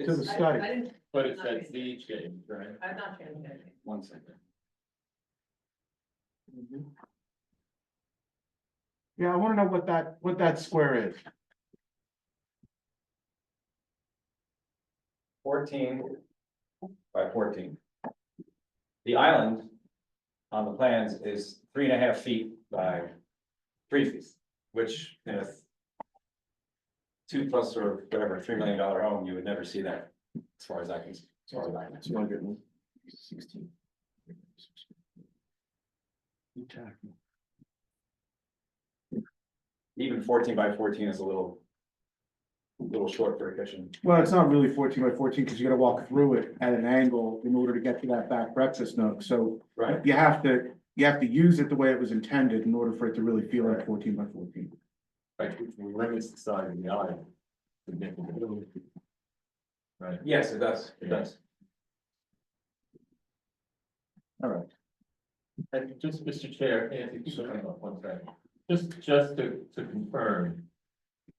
to the It's- site. I didn't, But it's that Z change, right? I've not changed anything. One second. Yeah, I wanna know what that, what that square is. fourteen by fourteen. The island on the plans is three and a half feet by three feet, which in a two plus or whatever, three million dollar home, you would never see that, as far as I can, as far as I can. Two hundred and sixteen. Even fourteen by fourteen is a little little short for a kitchen. Well, it's not really fourteen by fourteen, because you gotta walk through it at an angle in order to get to that back breakfast nook, so Right. you have to, you have to use it the way it was intended in order for it to really feel like fourteen by fourteen. Like, it limits the size of the island. significantly. Right, Yes, it does, it does. All right. and just, Mr. Chair, Anthony, just hang on one second, just, just to, to confirm.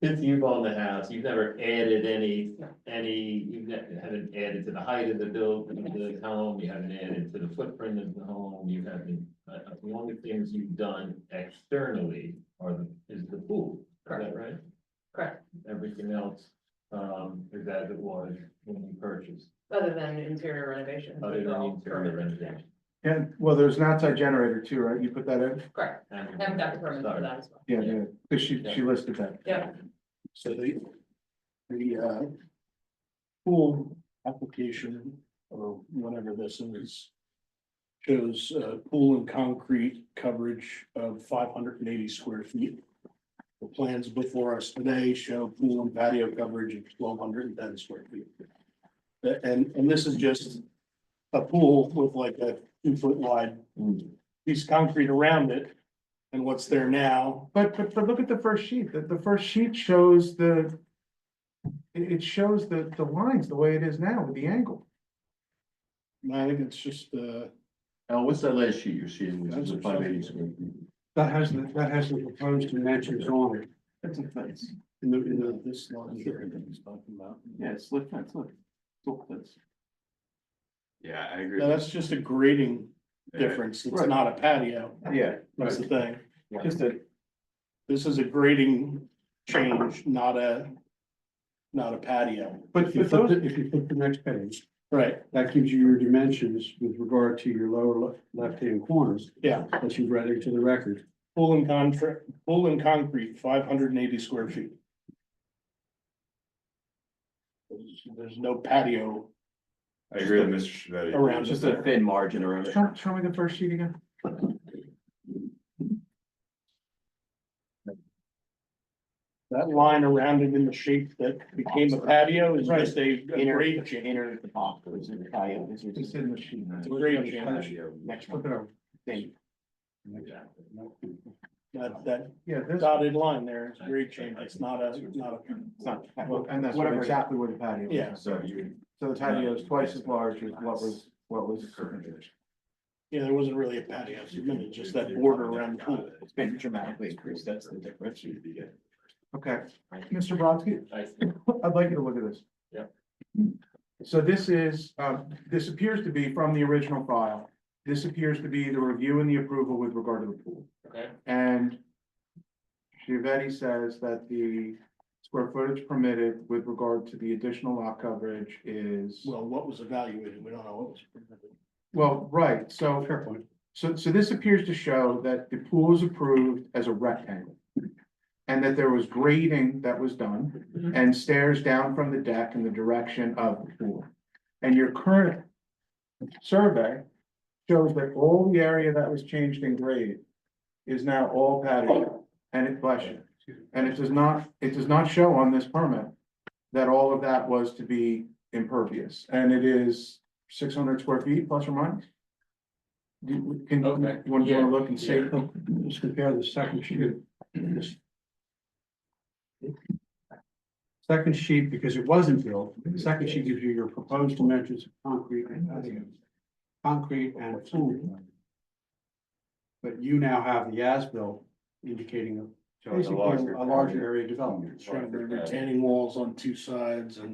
Since you've owned the house, you've never added any, any, you've ne- haven't added to the height of the building, of the home, you haven't added to the footprint of the home, you haven't. Uh, uh, the only things you've done externally are the, is the pool, is that right? Correct. Everything else, um, is as it was when you purchased, Other than interior renovations. other it's than all interior permanent, yeah. renovation. And, well, there's an outside generator too, right? You put that in? Correct, I haven't got the permit for that as well. Yeah, yeah, 'cause she, she listed that. Yeah, So the, the, uh, pool application or whatever this is. Shows, uh, pool and concrete coverage of five hundred and eighty square feet. The plans before us today show pool and patio coverage of twelve hundred and ten square feet. Uh, And, and this is just a pool with like a two foot wide piece of concrete around it. And what's there now But, but, but look at the first sheet, the, the first sheet shows the. It, it shows the, the lines the way it is now with the angle. I think it's just, uh. Al, Oh, what's that last sheet you're seeing, which is a That's five something. eighty square feet? That has the, that has the proposed dimensions on it. That's a fence. In the, in the, this line here that he's talking about. Yeah, it's look, that's look, look, that's. Yeah, I agree. Now, that's just a grading difference. It's Right. not a patio. Yeah. That's the thing. Just a, This is a grading change, not a, not a patio. but, If you but flip those, it, if you flip the next page, Right, that gives you your dimensions with regard to your lower le- left-hand corners yeah. that you've read into the record. Pool and contract, pool and concrete, five hundred and eighty square feet. There's- There's no patio I agree with Mr. Shavetti. around. Just it. a thin margin around it. show, show me the first sheet again. That line around it in the shape that became a patio is just a a grade change. Inner at the top, it was in the patio, this is It's in the sheet. It's a grade change. patio. Next one. Flip it over. That, that Yeah, this, dotted line there is grade change. It's not a, not a, it's not, well, and that's what- exactly where the patio is. Yeah. So you. So the patio is twice as large as what was, what was. yeah, there wasn't really a patio. It's really just that border around the pool. It's been dramatically increased, that's the difference. Okay, Mr. Brodsky, I I'd like you to look at this. Yeah. So this is, um, this appears to be from the original file. This appears to be the review and the approval with regard to the pool. Okay. And Shivetti says that the square footage permitted with regard to the additional lot coverage is, Well, what was evaluated? We don't know what was. presented. well, right, so. Fair point. So, so this appears to show that the pool is approved as a rectangle. And that there was grading that was done Mhm. and stairs down from the deck in the direction of the pool. And your current survey shows that all the area that was changed in grade is now all patio and it bless you. And it does not, it does not show on this permit that all of that was to be impervious. And it is six hundred square feet plus or minus. Do, you- can, you Okay, wanna, yeah, wanna look and see? yeah. Let's compare the second sheet. Second sheet, because it wasn't built, the second sheet gives you your proposed dimensions of concrete and patio. Concrete and pool. But you now have the as-built indicating a- So it's a basically larger- a larger area development. Showing the retaining walls on two sides and